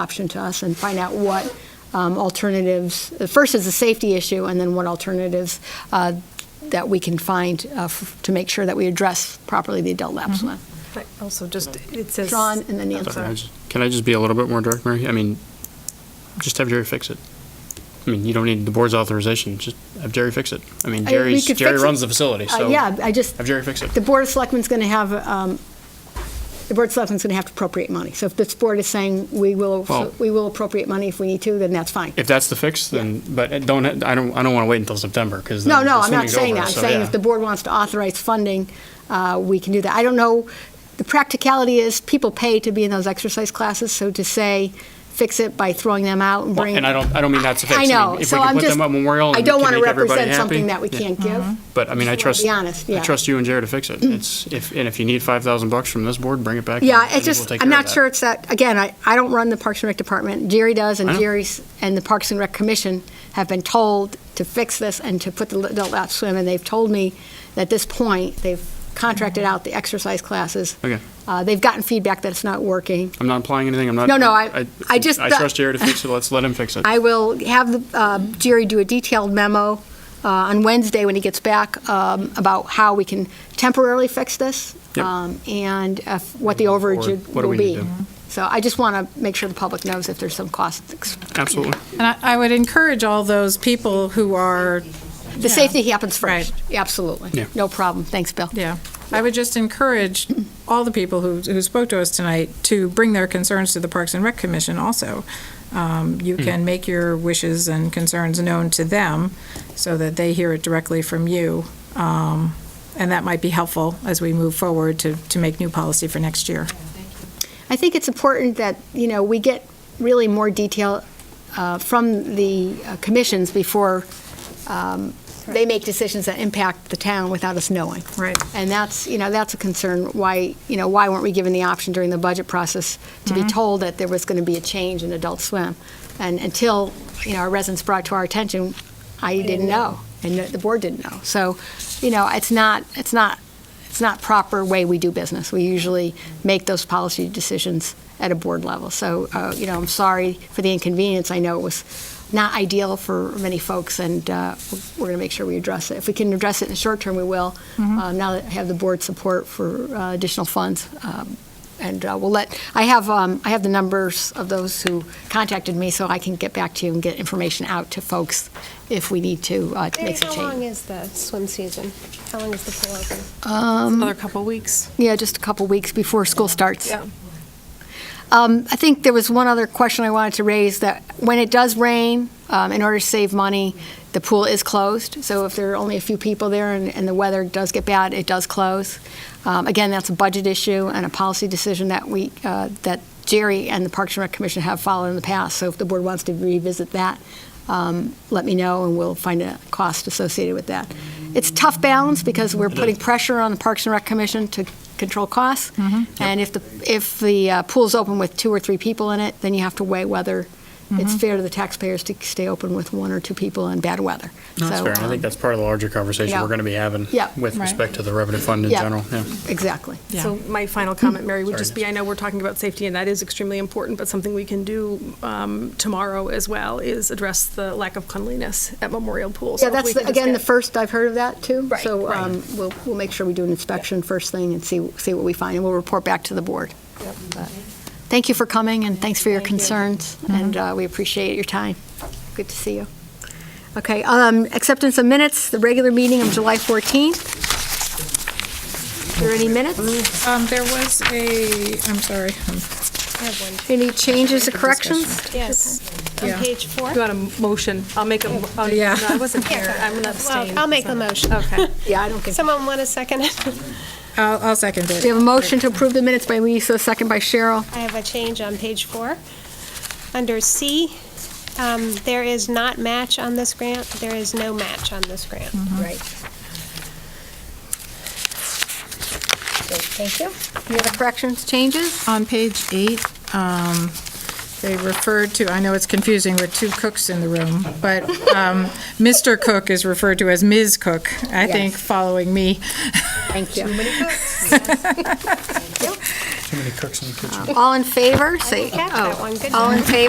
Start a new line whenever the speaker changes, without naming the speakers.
option to us and find out what um, alternatives, first is a safety issue, and then what alternatives uh, that we can find uh, f- to make sure that we address properly the adult lapse one.
I Also, just, it says.
John and then Nancy.
sorry.
Sorry, I just- Can I just be a little bit more direct, Mary? I mean, just have Jerry fix it. I mean, you don't need the board's authorization, just have Jerry fix it. I mean,
I- we
Jerry's,
could
Jerry
fix it.
runs the facility,
Uh,
so.
Yeah, I just.
Have Jerry fix it.
The Board of Selectmen's going to have, um, the Board of Selectmen's going to have to appropriate money. So if this board is saying we will,
Well-
we will appropriate money if we need to, then that's fine.
If that's the fix, then, but don't, I don't, I don't want to wait until September, because.
No, no, I'm not saying that. I'm saying if the board wants to authorize funding, uh, we can do that. I don't know, the practicality is, people pay to be in those exercise classes, so to say, fix it by throwing them out and
Well,
bring.
and I don't- I don't mean that's a fix. I
I
mean,
know,
if we
so
could
I'm
put
just,
them at Memorial and
I
we
don't
can
want to
make everybody
represent something
happy.
that we
Yeah. Mm-hmm.
can't give.
But I mean,
Just
I
wanna
trust.
be honest, yeah. Mm.
I trust you and Jared to fix it. It's, if, and if you need five thousand bucks from this board, bring it back.
Yeah, it's
and we'll
just,
take
I'm
care of
not
that.
sure it's that, again, I, I don't run the Parks and Rec Department. Jerry does, and
I know.
Jerry's, and the Parks and Rec Commission have been told to fix this and to put the adult lap swim, and they've told me that at this point, they've contracted out the exercise classes.
Okay.
Uh, They've gotten feedback that it's not working.
I'm not implying anything. I'm not.
No, no, I- I just-
I trust Jared to fix it. Let's let him fix it.
I will have the, uh, Jerry do a detailed memo uh, on Wednesday when he gets back um, about how we can temporarily fix this
Yep.
um, and if- what the
Moving
overage
forward, what do
will
we need
be.
to do?
So I just want to make sure the public knows if there's some costs.
Absolutely.
And I, I would encourage all those people who are,
The
Yeah.
safety happens first.
Right.
Absolutely.
Yeah.
No problem. Thanks, Bill.
yeah, I would just encourage all the people who, who spoke to us tonight to bring their concerns to the Parks and Rec Commission also. Um, You can make your wishes and concerns known to them so that they hear it directly from you. Um, And that might be helpful as we move forward to, to make new policy for next year.
I think it's important that, you know, we get really more detail uh, from the uh, commissions before um, they make decisions that impact the town without us knowing.
Right.
And that's, you know, that's a concern, why, you know, why weren't we given the option during the budget process to be told that there was going to be a change in Adult Swim? And until, you know, our residents brought to our attention, I didn't know, and the board didn't know. So, you know, it's not, it's not, it's not proper way we do business. We usually make those policy decisions at a board level. So, uh, you know, I'm sorry for the inconvenience. I know it was not ideal for many folks, and uh, we're going to make sure we address it. If we can address it in the short term, we will. Um, Now that I have the board support for uh, additional funds, um, and uh, we'll let, I have, um, I have the numbers of those who contacted me, so I can get back to you and get information out to folks if we need to uh, to
Mary,
make some
how long
change.
is the swim season? How long is the pool open?
Another couple weeks.
Um, Yeah, just a couple weeks before school starts.
Um, Yeah.
Um, I think there was one other question I wanted to raise, that when it does rain, um, in order to save money, the pool is closed. So if there are only a few people there and, and the weather does get bad, it does close. Um, Again, that's a budget issue and a policy decision that we, uh, that Jerry and the Parks and Rec Commission have followed in the past. So if the board wants to revisit that, um, let me know, and we'll find a cost associated with that. It's a tough balance, because we're putting pressure on the Parks and Rec Commission to control costs, and if the, if the uh, pool's open with two or three people in it, then you have to weigh whether it's fair to the taxpayers to stay open with one or two people in bad weather.
That's
So,
fair. I
um,
think that's part of the larger conversation
yeah.
we're going to be having
Yeah.
with
Right.
respect to the revenue fund in
Yeah.
general. Yeah.
Exactly.
Yeah.
So my final comment, Mary, would
Sorry,
just be,
Nancy.
I know we're talking about safety, and that is extremely important, but something we can do um, tomorrow as well is address the lack of cleanliness at Memorial Pool. So
Yeah,
if
that's,
we can
the-
just
again, the
get-
first I've heard of that, too.
Right,
So
right.
um, we'll, we'll make sure we do an inspection first thing and see, see what we find, and we'll report back to the board. But Thank you for coming, and thanks for your concerns, and uh, we appreciate your time. Good to see you. Okay, um, acceptance of minutes, the regular meeting of July 14th. Are there any minutes?
Um, there was a, I'm sorry, um,
I have one.
Any changes or corrections?
Yes. On
Yeah.
page four?
You want a motion? I'll make a, mo- oh,
Yeah.
no, I wasn't here. I'm going to abstain.
Well, I'll make a motion.
Okay.
Yeah, I don't think.
Someone want a second?
I'll, I'll second it.
We have a motion to approve the minutes by Lisa, second by Cheryl.
I have a change on page four. Under C, um, there is not match on this grant. There is no match on this grant.
Right. Thank you. Any other corrections, changes?
On page eight, um, They referred to, I know it's confusing with two cooks in the room, but um, Mr. Cook is referred to as Ms. Cook, I think,
Yes.
following me.
Thank you.
Too many cooks in the kitchen.
All in favor, say,
Catch that
oh,
one, good
all in favor?